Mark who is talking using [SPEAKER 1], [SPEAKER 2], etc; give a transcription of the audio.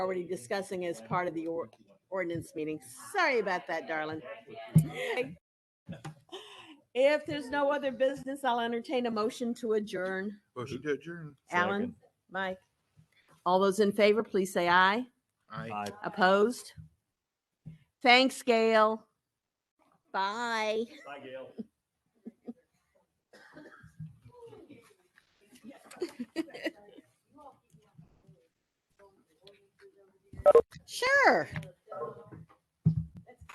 [SPEAKER 1] already discussing as part of the or- ordinance meeting. Sorry about that, darling. If there's no other business, I'll entertain a motion to adjourn.
[SPEAKER 2] Motion to adjourn.
[SPEAKER 1] Alan, Mike, all those in favor, please say aye.
[SPEAKER 2] Aye.
[SPEAKER 3] Aye.
[SPEAKER 1] Opposed? Thanks, Gail. Bye.
[SPEAKER 3] Bye, Gail.